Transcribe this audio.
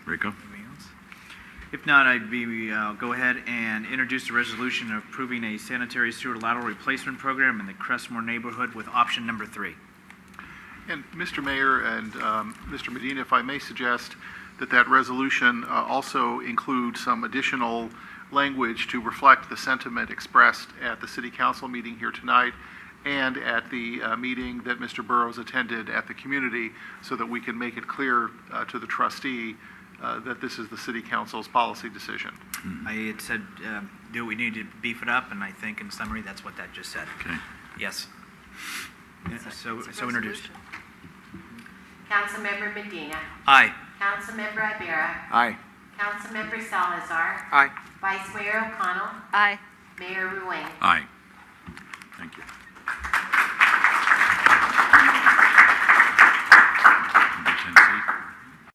Rico? Anything else? If not, I'd be, uh, go ahead and introduce a resolution approving a sanitary sewer lateral replacement program in the Crestmore neighborhood with option number three. And Mr. Mayor and um, Mr. Medina, if I may suggest that that resolution uh, also include some additional language to reflect the sentiment expressed at the city council meeting here tonight and at the uh, meeting that Mr. Burrows attended at the community so that we can make it clear uh, to the trustee uh, that this is the city council's policy decision. I had said, um, do we need to beef it up, and I think in summary, that's what that just said. Okay. Yes. Yeah, So, It's a so introduced. resolution. Councilmember Medina. Aye. Councilmember Ibera. Aye. Councilmember Salazar. Aye. Vice Mayor O'Connell. Aye. Mayor Ruane. Aye.